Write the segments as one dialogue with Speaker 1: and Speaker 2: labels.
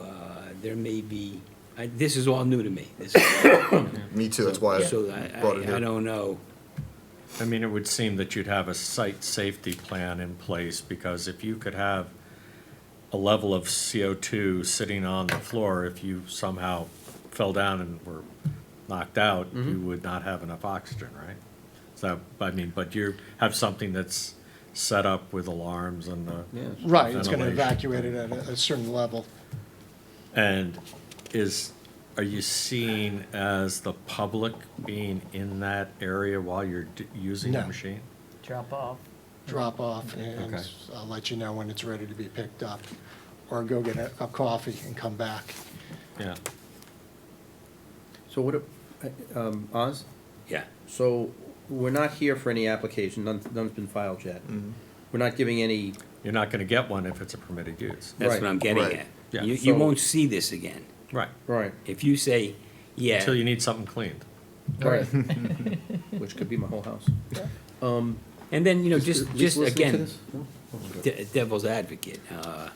Speaker 1: uh, there may be, I- this is all new to me. This is-
Speaker 2: Me too, that's why I
Speaker 1: So I,
Speaker 2: brought it
Speaker 1: I- I
Speaker 2: here.
Speaker 1: don't know.
Speaker 3: I mean, it would seem that you'd have a site safety plan in place, because if you could have a level of CO2 sitting on the floor, if you somehow fell down and were knocked out, you would not have enough oxygen, right? So, I mean, but you have something that's set up with alarms and the.
Speaker 4: Right, it's gonna
Speaker 3: ventilation.
Speaker 4: evacuate it at a, a certain level.
Speaker 3: And is, are you seen as the public being in that area while you're d- using the
Speaker 4: No.
Speaker 3: machine?
Speaker 5: drop off.
Speaker 4: Drop off and
Speaker 3: Okay.
Speaker 4: I'll let you know when it's ready to be picked up. Or go get a, a coffee and come back.
Speaker 3: Yeah.
Speaker 6: So what, a- um, Oz,
Speaker 1: Yeah.
Speaker 6: so we're not here for any application, none, none's been filed yet. We're not giving any,
Speaker 3: You're not gonna get one if it's a permitted use.
Speaker 1: That's
Speaker 6: Right.
Speaker 1: what I'm getting
Speaker 2: Right.
Speaker 1: at.
Speaker 3: Yeah.
Speaker 1: You, you
Speaker 6: So-
Speaker 1: won't see this again.
Speaker 3: Right.
Speaker 6: right,
Speaker 1: If you say, yeah.
Speaker 3: Until you need something cleaned.
Speaker 6: right, which could be my whole house. Um,
Speaker 1: And then, you know, just,
Speaker 6: at least
Speaker 1: just
Speaker 6: listening to
Speaker 1: again,
Speaker 6: this? No?
Speaker 1: de- devil's advocate, uh,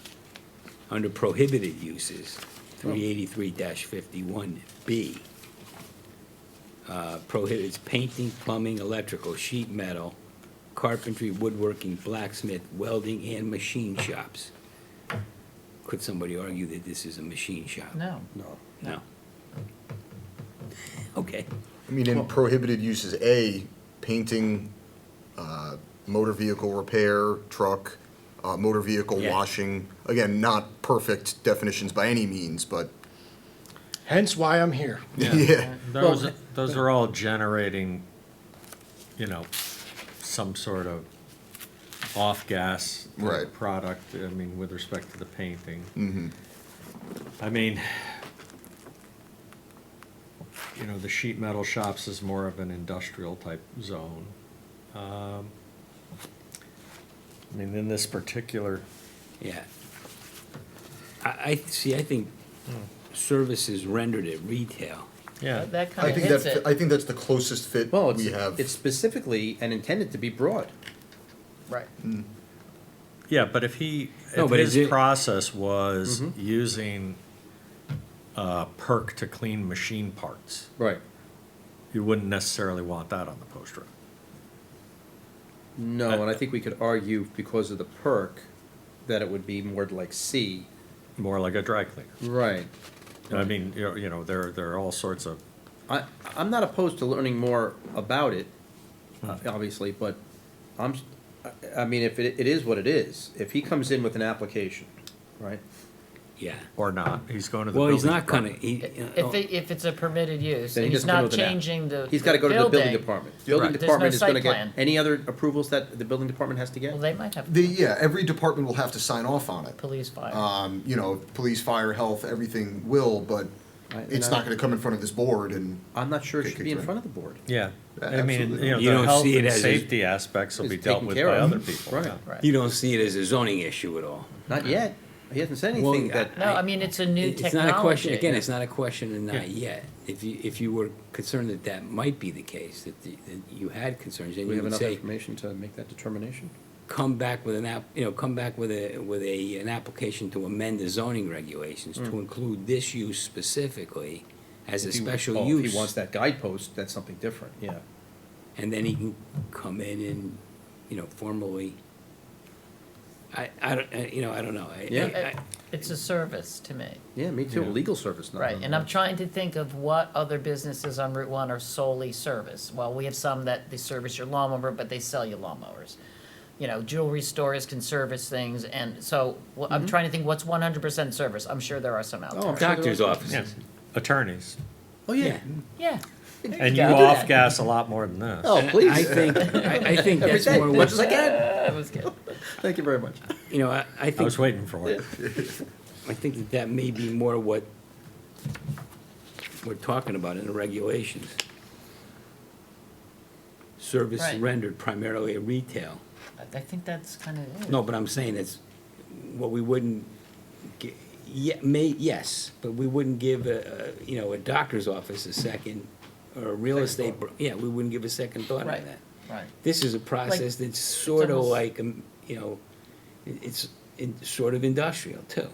Speaker 1: under prohibited uses, three eighty-three fifty-one B, uh, prohibits painting, plumbing, electrical, sheet metal, carpentry, woodworking, blacksmith, welding, and machine shops. Could somebody argue that this is a machine shop?
Speaker 5: No.
Speaker 6: No.
Speaker 1: No. Okay,
Speaker 2: I mean, in prohibited uses, A, painting, uh, motor vehicle repair, truck, uh, motor vehicle
Speaker 1: Yeah.
Speaker 2: washing. Again, not perfect definitions by any means, but,
Speaker 4: Hence why I'm here.
Speaker 2: yeah.
Speaker 3: Those, those are all generating, you know, some sort of off-gas
Speaker 2: Right.
Speaker 3: product, I mean, with respect to the painting.
Speaker 2: Mhm.
Speaker 3: I mean, you know, the sheet metal shops is more of an industrial type zone. Um, I mean, in this particular,
Speaker 1: yeah. I, I, see, I think services rendered at retail
Speaker 3: yeah.
Speaker 5: That
Speaker 2: I
Speaker 5: kind of
Speaker 2: think
Speaker 5: hits
Speaker 2: that's, I
Speaker 5: it,
Speaker 2: think that's the closest fit
Speaker 6: Well,
Speaker 2: we have.
Speaker 6: it's, it's specifically and intended to be broad.
Speaker 5: right.
Speaker 3: Yeah, but if he,
Speaker 1: No,
Speaker 3: if
Speaker 1: but Mm-hmm. is
Speaker 3: his
Speaker 1: it-
Speaker 3: process was using uh, perk to clean machine parts,
Speaker 6: Right.
Speaker 3: you wouldn't necessarily want that on the post road.
Speaker 6: No, and I think we could argue because of the perk, that it would be more like C.
Speaker 3: More like a dry cleaner.
Speaker 6: Right.
Speaker 3: I mean, you know, you know, there there are all sorts of
Speaker 6: I, I'm not opposed to learning more about it, uh, obviously, but I'm, s- I- I mean, if it, it is what it is, if he comes in with an application, right?
Speaker 1: Yeah.
Speaker 3: or not. He's going to the.
Speaker 1: Well, he's
Speaker 3: building
Speaker 1: not gonna,
Speaker 3: department.
Speaker 1: he,
Speaker 5: If, it- if it's a permitted use,
Speaker 6: Then he
Speaker 5: and he's
Speaker 6: doesn't come
Speaker 5: not
Speaker 6: with an app.
Speaker 5: changing the.
Speaker 6: He's gotta go to the building department. Building
Speaker 3: Right.
Speaker 5: There's no
Speaker 6: department is gonna
Speaker 5: site
Speaker 6: get,
Speaker 5: plan.
Speaker 6: any other approvals that the building department has to get?
Speaker 5: Well, they might have
Speaker 2: The, yeah, every department will have to sign off on it.
Speaker 5: police fire.
Speaker 2: Um, you know, police, fire, health, everything will, but
Speaker 6: I- and
Speaker 2: it's
Speaker 6: I-
Speaker 2: not gonna come in front of this board and,
Speaker 6: I'm not sure it
Speaker 2: Okay,
Speaker 6: should be in
Speaker 2: good.
Speaker 6: front of the board.
Speaker 3: Yeah,
Speaker 2: Yeah,
Speaker 3: I mean,
Speaker 2: absolutely.
Speaker 3: you know,
Speaker 1: You
Speaker 3: the
Speaker 1: don't
Speaker 3: health
Speaker 1: see it
Speaker 3: and
Speaker 1: as a-
Speaker 3: safety aspects will
Speaker 6: It's
Speaker 3: be dealt
Speaker 6: taken
Speaker 3: with
Speaker 6: care
Speaker 3: by
Speaker 6: of.
Speaker 3: other people.
Speaker 6: Right.
Speaker 3: yeah.
Speaker 5: Right.
Speaker 1: you don't see it as a zoning issue at all.
Speaker 6: Not yet, he hasn't said
Speaker 1: Well,
Speaker 6: anything that,
Speaker 1: I-
Speaker 5: No, I mean, it's a new technology.
Speaker 1: It's not a question, again, it's
Speaker 5: Yeah.
Speaker 1: not a question of
Speaker 3: Yeah.
Speaker 1: not yet. If you, if you were concerned that that might be the case, that, the- that you had concerns, then
Speaker 6: we
Speaker 1: you
Speaker 6: have
Speaker 1: would
Speaker 6: enough
Speaker 1: say,
Speaker 6: information to make that determination?
Speaker 1: come back with an app, you know, come back with a, with a, an application to amend the zoning regulations to include this use specifically as a
Speaker 6: Hmm. If he-
Speaker 1: special
Speaker 6: oh, if
Speaker 1: use.
Speaker 6: He wants that guidepost, that's something different, yeah.
Speaker 1: and then he can come in and, you know, formally. I, I don't, I- you know, I don't know. I-
Speaker 6: Yeah.
Speaker 1: I- I-
Speaker 5: Uh, It's a service to me,
Speaker 6: Yeah, me too,
Speaker 3: Yeah.
Speaker 6: legal service, not.
Speaker 5: right? And I'm trying to think of what other businesses on Route One are solely service. Well, we have some that they service your lawnmower, but they sell you lawnmowers. You know, jewelry stores can service things, and so wh- I'm trying to think what's one hundred percent service. I'm sure there are some out
Speaker 6: Oh,
Speaker 5: there.
Speaker 6: I'm sure there
Speaker 1: Doctor's
Speaker 6: are-
Speaker 3: Yeah.
Speaker 1: offices.
Speaker 3: Attorneys,
Speaker 6: Oh,
Speaker 1: Yeah.
Speaker 6: yeah.
Speaker 5: Yeah.
Speaker 3: and you
Speaker 5: go.
Speaker 3: off gas a lot more than this.
Speaker 6: Oh, please.
Speaker 1: I think, I, I think
Speaker 6: Every
Speaker 1: that's
Speaker 6: day,
Speaker 1: more what,
Speaker 6: much as I can.
Speaker 5: That was good.
Speaker 6: Thank you very much.
Speaker 1: you know, I, I
Speaker 3: I
Speaker 1: think,
Speaker 3: was waiting for it.
Speaker 1: I think that that may be more what we're talking about in the regulations. Service
Speaker 5: Right.
Speaker 1: rendered primarily at retail.
Speaker 5: I- I think that's kind of it.
Speaker 1: No, but I'm saying it's, what we wouldn't, gi- ye- may, yes, but we wouldn't give a, a, you know, a doctor's office a second, or a real
Speaker 5: Second
Speaker 1: estate, bro- yeah, we wouldn't give a second thought on
Speaker 5: Right,
Speaker 1: that.
Speaker 5: right.
Speaker 1: This is a process that's sort of
Speaker 5: almost-
Speaker 1: like, um, you know, it- it's in- sort of industrial too.